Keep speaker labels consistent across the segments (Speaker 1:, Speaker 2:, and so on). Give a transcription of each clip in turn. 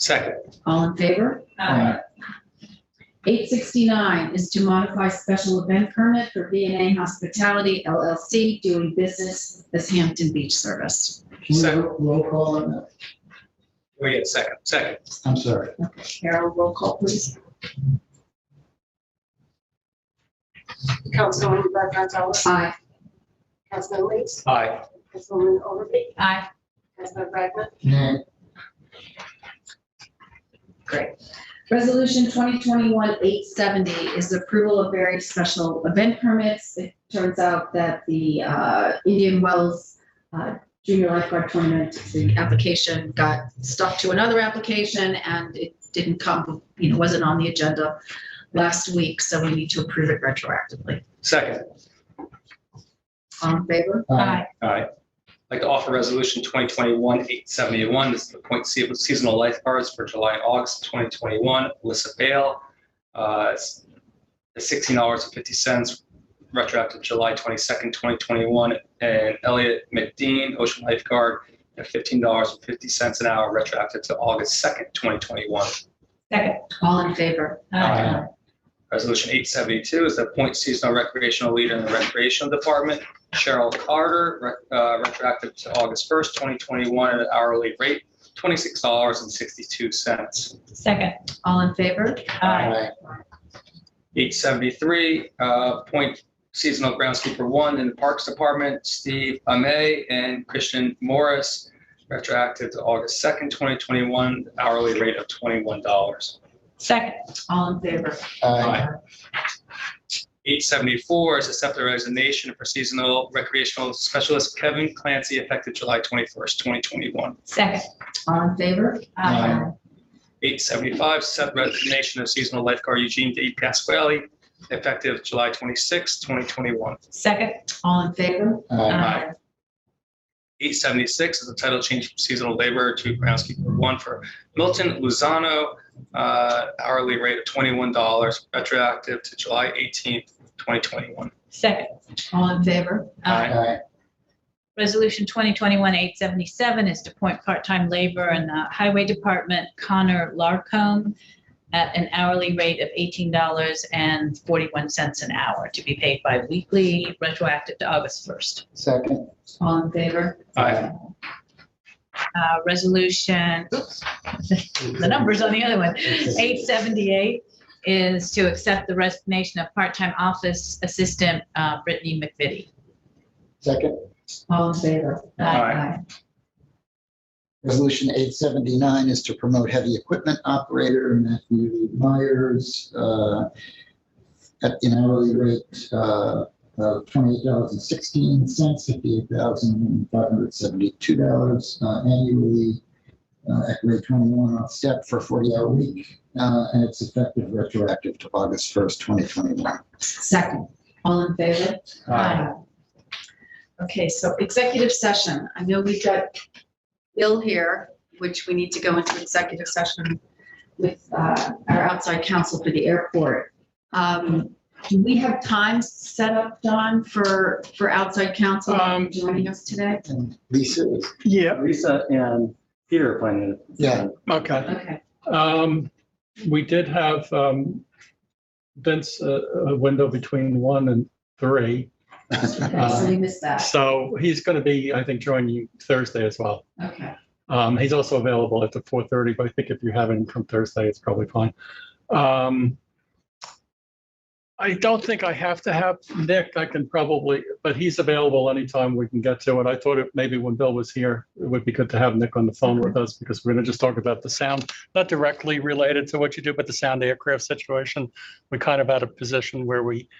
Speaker 1: Second.
Speaker 2: All in favor?
Speaker 3: Aye.
Speaker 2: Eight sixty-nine is to modify special event permit for V and A Hospitality LLC doing business as Hampton Beach Service.
Speaker 3: Can we
Speaker 1: Second.
Speaker 3: ro- roll call on that?
Speaker 1: Oh, yeah, second, second.
Speaker 3: I'm sorry.
Speaker 2: Okay, Carol, roll call, please.
Speaker 4: Councilwoman Brad Gonzalez,
Speaker 2: Aye.
Speaker 4: Councilman Leeds,
Speaker 1: Aye.
Speaker 4: Councilwoman Overby,
Speaker 2: Aye.
Speaker 4: Councilman Bragman,
Speaker 3: Nay.
Speaker 2: Resolution 2021-870 is approval of various special event permits. It turns out that the uh, Indian Wells uh, Junior Lifeguard Tournament, the application got stuck to another application and it didn't come, you know, wasn't on the agenda last week, so we need to approve it retroactively.
Speaker 1: Second.
Speaker 2: All in favor?
Speaker 3: Aye.
Speaker 1: All right. I'd like to offer resolution 2021-871. This is to appoint se- seasonal lifeguards for July and August 2021. Alyssa Bale, uh, s- $16.50 retroactive July 22nd, 2021. And Elliot McDean, ocean lifeguard, at $15.50 an hour retroactive to August 2nd, 2021.
Speaker 5: Second.
Speaker 2: All in favor?
Speaker 3: Aye.
Speaker 1: Resolution 872 is to appoint seasonal recreational leader in the recreational department, Cheryl Carter, re- uh, retroactive to August 1st, 2021, at an hourly rate, $26.62.
Speaker 5: Second.
Speaker 2: All in favor?
Speaker 5: Aye.
Speaker 1: 873, uh, appoint seasonal groundskeeper one in the Parks Department, Steve Amay and Christian Morris, retroactive to August 2nd, 2021, hourly rate of $21.
Speaker 5: Second.
Speaker 2: All in favor?
Speaker 3: Aye.
Speaker 1: 874 is accept the resignation for seasonal recreational specialist Kevin Clancy effective July 21st, 2021.
Speaker 5: Second.
Speaker 2: All in favor?
Speaker 3: Aye.
Speaker 1: 875, accept resignation of seasonal lifeguard Eugene D. Pasquale effective July 26th, 2021.
Speaker 5: Second.
Speaker 2: All in favor?
Speaker 3: Aye.
Speaker 1: Aye. 876 is a title change from seasonal laborer to groundskeeper one for Milton Luzano, uh, hourly rate of $21 retroactive to July 18th, 2021.
Speaker 5: Second.
Speaker 2: All in favor?
Speaker 1: Aye.
Speaker 3: Aye.
Speaker 5: Resolution 2021-877 is to appoint part-time labor in the Highway Department, Connor Larcombe, at an hourly rate of $18.41 an hour to be paid bi-weekly, retroactive to August 1st.
Speaker 3: Second.
Speaker 2: All in favor?
Speaker 1: Aye.
Speaker 5: Uh, Resolution, oops, the numbers on the other one. 878 is to accept the resignation of part-time office assistant uh, Brittany McVitie.
Speaker 3: Second.
Speaker 2: All in favor?
Speaker 1: Aye.
Speaker 3: Resolution 879 is to promote heavy equipment operator Matthew Myers uh, at an hourly rate uh, of $28.16, $58,572 uh, annually uh, at grade 21 on step for 40-hour week, uh, and it's effective retroactive to August 1st, 2021.
Speaker 2: Second, all in favor? Okay, so executive session. I know we've got Bill here, which we need to go into executive session with uh, our outside counsel for the airport. Um, Do we have times set up, Don, for, for outside counsel
Speaker 6: Um,
Speaker 2: joining us today?
Speaker 3: And Lisa is,
Speaker 6: Yeah,
Speaker 7: Lisa and Peter are planning it.
Speaker 3: yeah,
Speaker 6: okay.
Speaker 2: Okay,
Speaker 6: Um, we did have, um, Vince, uh, a window between one and three.
Speaker 2: okay, so we missed that.
Speaker 6: So he's going to be, I think, joining you Thursday as well.
Speaker 2: Okay,
Speaker 6: Um, he's also available after four thirty, but I think if you have him from Thursday, it's probably fine. Um, I don't think I have to have Nick. I can probably, but he's available anytime we can get to it. I thought it maybe when Bill was here, it would be good to have Nick on the phone with us because we're going to just talk about the sound, not directly related to what you do, but the sound aircraft situation. We kind of had a position where we,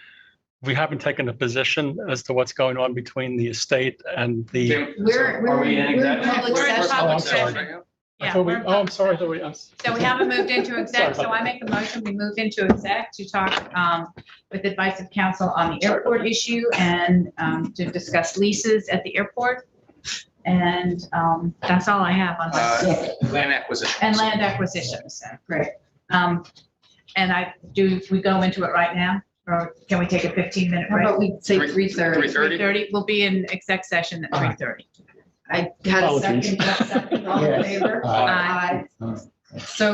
Speaker 6: we haven't taken a position as to what's going on between the estate and the.
Speaker 2: We're-
Speaker 1: Are we
Speaker 2: we're-
Speaker 1: in
Speaker 2: we're in
Speaker 1: exec-
Speaker 2: public
Speaker 1: we're
Speaker 5: session.
Speaker 6: Oh, I'm
Speaker 1: public session
Speaker 6: sorry.
Speaker 1: right now?
Speaker 6: I
Speaker 5: Yeah,
Speaker 6: thought we-
Speaker 5: we're in
Speaker 6: Oh, I'm
Speaker 5: public
Speaker 6: sorry. I
Speaker 5: session.
Speaker 6: thought we- I'm s-
Speaker 5: So we haven't moved into exec, so I make a motion, we move into exec to talk um, with advice of counsel on the airport issue and um, to discuss leases at the airport. And um, that's all I have on my,
Speaker 1: Uh, Land acquisition.
Speaker 5: and land acquisitions, so, great. Um, And I, do we go into it right now, or can we take a 15-minute
Speaker 2: how
Speaker 5: break?
Speaker 2: about we say
Speaker 1: Three-
Speaker 2: 3:30?
Speaker 1: 3:30?
Speaker 5: 3:30, we'll be in exec session at 3:30.
Speaker 2: I had a second,
Speaker 6: Apologies.
Speaker 2: second, all in
Speaker 3: Yes.
Speaker 2: favor?
Speaker 3: Aye.
Speaker 5: Aye.
Speaker 3: Aye.
Speaker 2: So